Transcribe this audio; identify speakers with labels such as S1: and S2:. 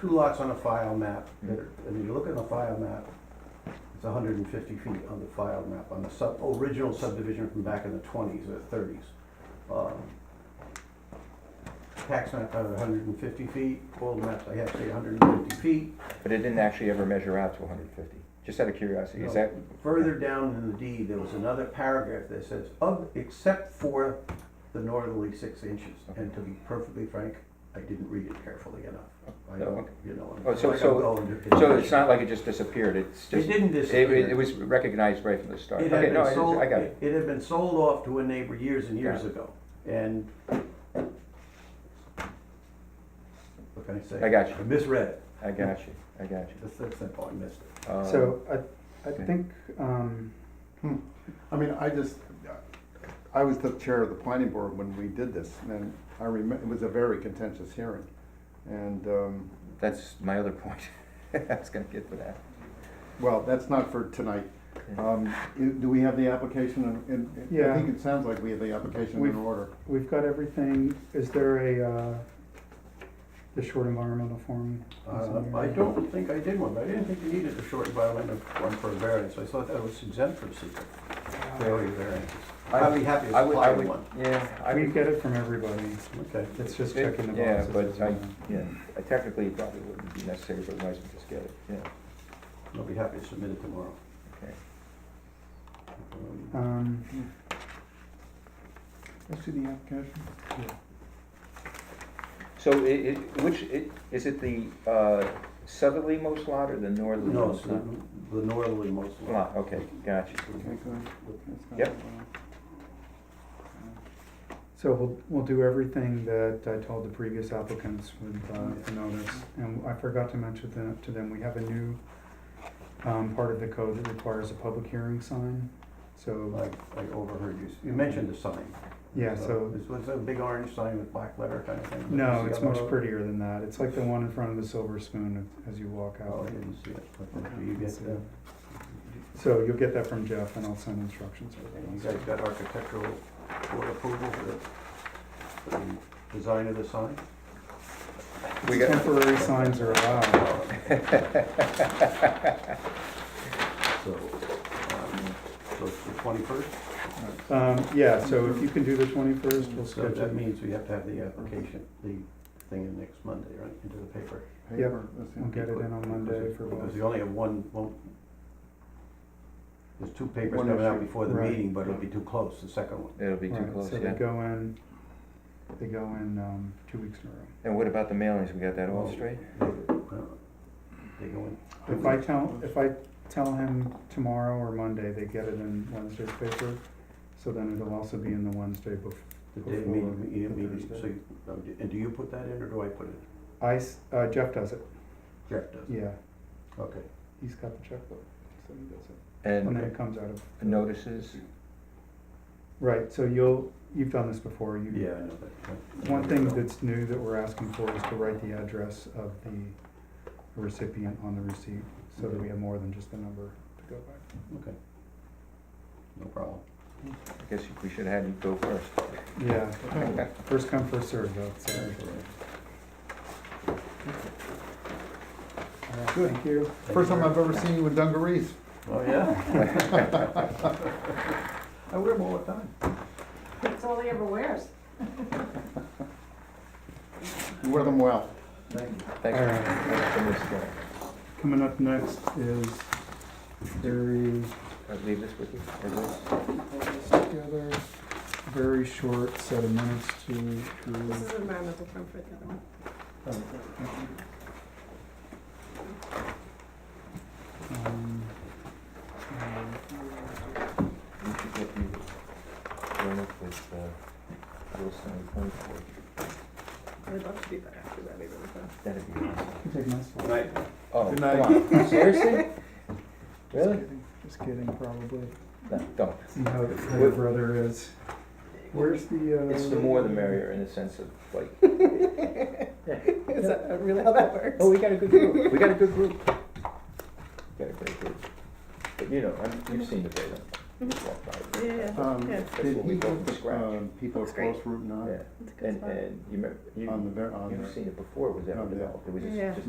S1: two lots on a file map,
S2: Hmm.
S1: that are- and you look at the file map, it's hundred and fifty feet on the file map, on the sub, original subdivision from back in the twenties or thirties. Um, Tax map had hundred and fifty feet, old maps, I have to say hundred and fifty feet.
S2: But it didn't actually ever measure out to hundred fifty, just out of curiosity, is
S1: No.
S2: that,
S1: Further down in the deed, there was another paragraph that says, of, except for the northerly six inches. And to be perfectly frank, I didn't read it carefully enough. I
S2: Oh,
S1: don't,
S2: okay.
S1: you know.
S2: Oh, so-
S1: like I'm
S2: so-
S1: going to-
S2: so it's not like it just disappeared, it's
S1: It
S2: just.
S1: didn't
S2: It,
S1: disappear.
S2: it was recognized right from the start.
S1: It
S2: Okay,
S1: had
S2: no,
S1: been
S2: I,
S1: sold,
S2: I got it.
S1: it it had been sold off to a neighbor years and years
S2: Got
S1: ago, and what can I say?
S2: I got you.
S1: I misread it.
S2: I got you, I got you.
S1: That's that's simple, I missed it.
S2: Um,
S3: So I, I
S2: okay.
S3: think, um,
S4: I mean, I just, I was the chair of the planning board when we did this, and I remember, it was a very contentious hearing. And, um,
S2: That's my other point. I was gonna get to that. Uh,
S4: well, that's not for tonight. Um, i- Do we have the application in- in?
S3: Yeah.
S4: I think it sounds like we have the application in
S3: We've-
S4: order.
S3: we've got everything, is there a, uh, the short environmental form? is in
S1: Uh,
S3: there?
S1: I don't think I did one, but I didn't think you needed a short environmental one for a variance, I thought that was exempt from secret failure variances. I'd be happy to
S2: I would, I
S1: supply
S2: would,
S1: one.
S2: yeah, I
S3: We
S2: would.
S3: get it from everybody,
S1: Okay,
S3: it's just
S2: it-
S3: checking the
S2: Yeah,
S3: boxes.
S2: but
S3: as
S2: I,
S3: well.
S2: yeah, I technically it probably wouldn't be necessary, but might as well just get it, yeah,
S1: I'll be happy to submit it tomorrow.
S2: okay.
S1: Um,
S3: Um,
S4: Let's see the application.
S2: So i- i- which, i- is it the, uh, southerly most lot or the northerly?
S1: No,
S2: most
S1: it's not the northerly most lot.
S2: Lot, okay, gotcha.
S4: Okay, good. That's not-
S2: Yep.
S3: So we'll, we'll do everything that I told the previous applicants with uh, the notice. And I forgot to mention that to them, we have a new um, part of the code that requires a public hearing sign. So,
S1: I, I overheard you, s- you mentioned the sign. Uh,
S3: yeah, so,
S1: This was a big orange sign with black letter kind of thing.
S3: no, it's much
S1: Yellow.
S3: prettier than that. It's like the one in front of the Silver Spoon as you walk
S1: Oh, I
S3: out.
S1: didn't see it. Okay, Do you get the,
S3: So you'll get that from Jeff and I'll send instructions for
S1: and you
S3: that.
S1: guys got architectural board approval for the, for the design of the sign?
S2: We got-
S3: Temporary signs are allowed.
S1: So, um, so it's the twenty-first?
S3: Um, Yeah, so if you can do the twenty-first, we'll
S1: So
S3: schedule.
S1: that means we have to have the application, the thing in next Monday, right, into the paper.
S4: Paper, let's see.
S3: We'll get it in on Monday for both.
S1: Because we only have one, one, there's two papers
S4: One
S1: coming out
S4: issue.
S1: before the
S3: Right.
S1: meeting, but it'll be too close, the second one.
S2: It'll be too
S3: Right,
S2: close,
S3: So they
S2: yeah.
S3: go in, they go in, um, two weeks in a row.
S2: And what about the mailings, we got that all straight?
S1: Uh, They go in,
S3: If I tell, if I tell him tomorrow or Monday, they get it in Wednesday's paper, so then it'll also be in the Wednesday bef-
S1: the day of
S3: Before
S1: meeting, you
S3: the
S1: meeting, so,
S3: Thursday.
S1: you- oh, do- and do you put that in, or do I put it? in?
S3: I, s- uh, Jeff does it,
S1: Jeff does.
S3: yeah,
S1: Okay,
S3: he's got the checkbook, so he does it. And then
S2: And
S3: it comes out of,
S2: notices,
S3: right, so you'll, you've done this before, you.
S1: yeah, I know that. right.
S3: One thing that's new that we're asking for is to write the address of the recipient on the receipt, so that we have more than just the number to go by.
S1: Okay. No problem.
S2: I guess we should have had you go first.
S3: Yeah, first come, first served, though, so. All right,
S4: Good.
S3: Thank you.
S4: First time I've ever seen you in dungarees.
S1: Oh, yeah? I wear them all the time.
S5: That's all he ever wears.
S4: You wear them well.
S1: Thank you.
S2: Thanks
S3: All
S2: for-
S3: right.
S2: thanks for this, uh,
S3: Coming up next is very,
S2: I'll leave this with you, or this?
S3: together, very short set of minutes to,
S5: This
S3: to,
S5: is environmental comfort, the other one.
S3: um, um,
S2: You should get you join up with uh, Wilson and Concord.
S5: I'd love to do that after that, even though.
S2: That'd be awesome.
S3: you take my slot.
S2: Oh,
S4: Good
S2: come on. Seriously? Really?
S3: Just kidding, probably.
S2: No, don't.
S3: See how how your brother is. Where's the, uh?
S2: It's the more the merrier in the sense of like,
S5: Is that really how that works?
S2: oh, we got a good group. We got a good group. Got a great group. But you know, I'm- you've seen the data. You've walked by it.
S5: Yeah,
S4: Um,
S5: Yeah.
S2: That's
S4: Did
S2: what we
S4: he
S2: go
S4: put
S2: from
S4: the,
S2: scratch.
S4: um, people
S5: Looks great.
S4: across Route 9
S2: Yeah,
S5: it's a good
S2: and,
S5: spot.
S2: and you remember,
S4: on the,
S2: you,
S4: ver- on the?
S2: you've seen it before it was ever
S4: on the-
S2: developed. It was
S5: Yeah.
S2: just